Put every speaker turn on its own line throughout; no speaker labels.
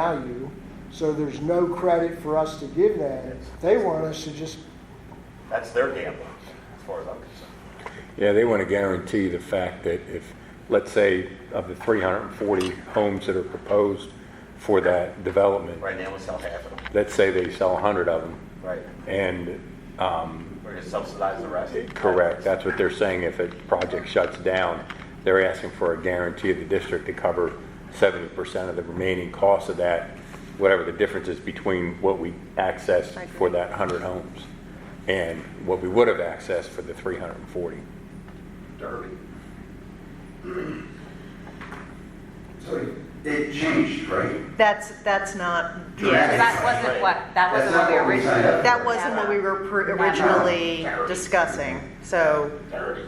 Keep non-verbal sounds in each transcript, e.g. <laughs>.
value, so there's no credit for us to give them. They want us to just,
That's their gamble, as far as I'm concerned.
Yeah, they want to guarantee the fact that if, let's say, of the 340 homes that are proposed for that development,
Right now, we sell half of them.
let's say they sell 100 of them,
Right.
and,
We're gonna subsidize the rest.
correct, that's what they're saying, if a project shuts down, they're asking for a guarantee of the district to cover 70% of the remaining cost of that, whatever the difference is between what we accessed for that 100 homes and what we would have accessed for the 340.
Derby. So it changed, right?
That's, that's not,
Dramatic.
yeah,
That wasn't what, that
That's
wasn't
not
what we
what we signed up
originally.
for.
that wasn't what we were pr- originally discussing. So,
Derby.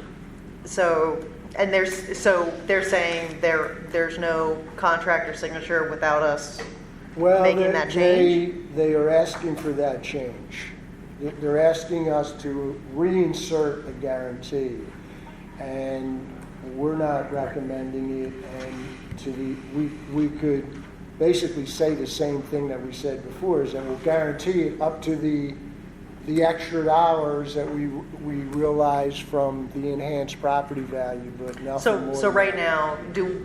so, and there's, so they're saying there, there's no contractor signature without us.
well,
Making
they-
that
they, they are asking for that change. They- They're asking us to reinsert a guarantee, and we're not recommending it. And to the, we, we could basically say the same thing that we said before, is that we'll guarantee it up to the, the extra dollars that we, we realize from the enhanced property value, but nothing
So,
more.
so
than
right
that.
now, do,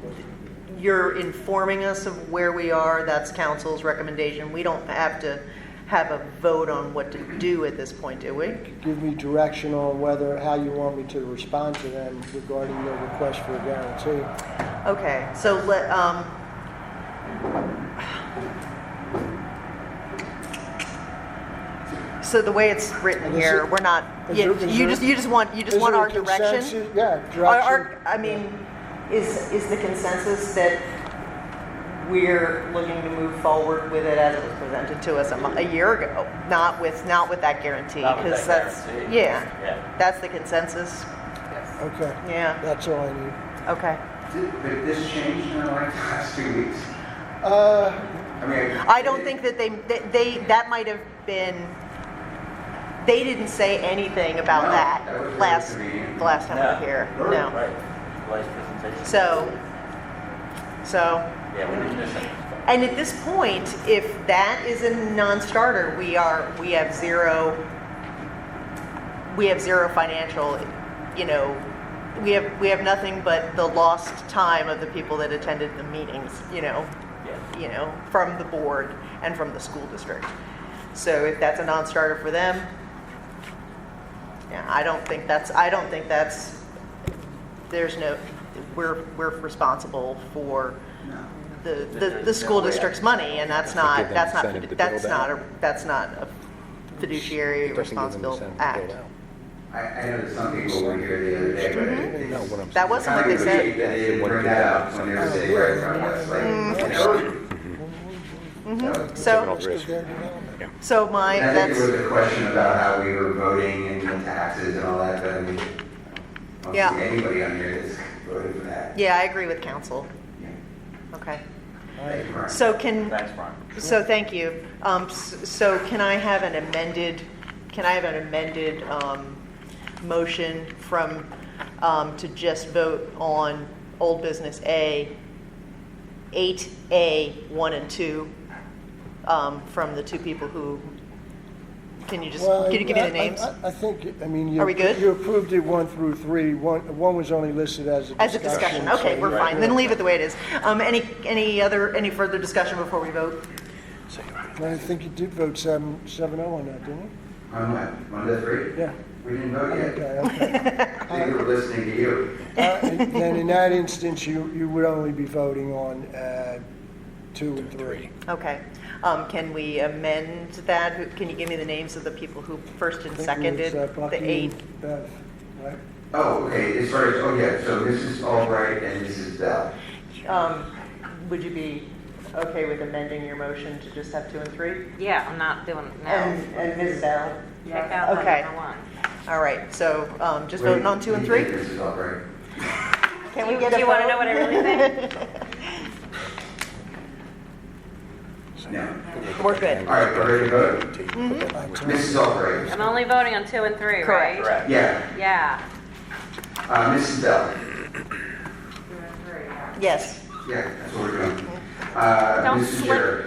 you're informing us of where we are, that's council's recommendation. We don't have to have a vote on what to do at this point, do we?
give me direction on whether, how you want me to respond to them regarding their request for a guarantee.
Okay, so let, um. So the way it's written
Is
here,
it-
we're not,
is
you,
there- is
you
there-
just, you just want, you just
Is
want
there a
our direction?
consensus? Yeah,
Our, our,
direction.
I mean, is, is the consensus that we're looking to move forward with it as it was presented to us a mo- a year ago? Not with, not with that guarantee,
Not with
because
that
that's,
guarantee. Yeah.
yeah, that's the consensus,
Okay,
yeah,
that's all I need.
okay.
Did did this change in the last <laughs> two weeks?
Uh,
I mean.
I don't think that they, that they, that might have been, they didn't say anything about
No,
that
that was
last,
really convenient.
the last time we were here,
No.
no.
Right, last presentation.
So, so,
Yeah, we didn't miss anything.
and at this point, if that is a non-starter, we are, we have zero, we have zero financial, you know, we have, we have nothing but the lost time of the people that attended the meetings, you know?
Yeah.
you know, from the board and from the school district. So if that's a non-starter for them, yeah, I don't think that's, I don't think that's, there's no, we're, we're responsible for the, the, the school district's money, and that's not,
Give them
that's
incentive to
not, that's
build
not,
out.
a that's not a fiduciary
It doesn't give them
responsible
incentive to build
act.
out.
I, I know that some people were here the other day, but.
You know what I'm
That
saying?
Mm-hmm. wasn't what
Kind
they
of appreciate
said.
that they didn't bring that up when they were sitting right in front of us,
Mm-hmm.
like, you know.
So,
Criminal risk.
so my,
And I think
Mm-hmm. that's,
there was a question about how we were voting and the taxes and all that, but I mean, I
Yeah.
don't see anybody on here that's voted for that.
yeah, I agree with council. Okay.
Thank you, Mark.
So can,
Thanks, Brian.
So thank you. Um, s- So can I have an amended, can I have an amended um, motion from, um, to just vote on old business A, 8A, 1 and 2, um, from the two people who, can you just,
well,
can you give me
I-
the names?
I- I I think, I mean, you.
Are we good?
You approved it one through three. One, one was only listed as a discussion.
As a discussion,
so
okay, we're
you're
fine, then
good.
leave it the way it is. Um, Any, any other, any further discussion before we vote?
I think you did vote seven, seven oh on that, didn't
On what, one to three?
you? Yeah.
We didn't vote yet.
Okay, okay.
They were listening to you.
Uh, Then in that instance, you, you would only be voting on uh, two and three.
Okay. Um, Can we amend that? Who- Can you give me the names of the people who first and
I think it was,
seconded
uh,
the
Bucky
eight?
and Bev, right?
Oh, okay, as far as, oh yeah, so Mrs. Albright and Mrs. Bell.
Um, Would you be okay with amending your motion to just have two and three?
Yeah, I'm not doing it now.
And and Ms. Bell?
Check out
Okay.
number one.
All right, so um, just voting on two and
Wait,
three?
Mrs. Albright.
Can we
Do-
get
do
a
you wanna
vote?
know what I really think?
<laughs>
No.
We're good.
All right, we're ready to vote. Mrs. Albright.
I'm only voting on two and three,
Correct.
right?
Correct.
Yeah,
Yeah.
uh, Mrs. Bell.
Yes.
Yeah, that's what we're doing. Uh,
Don't
Mrs.
slip-
Jarrett.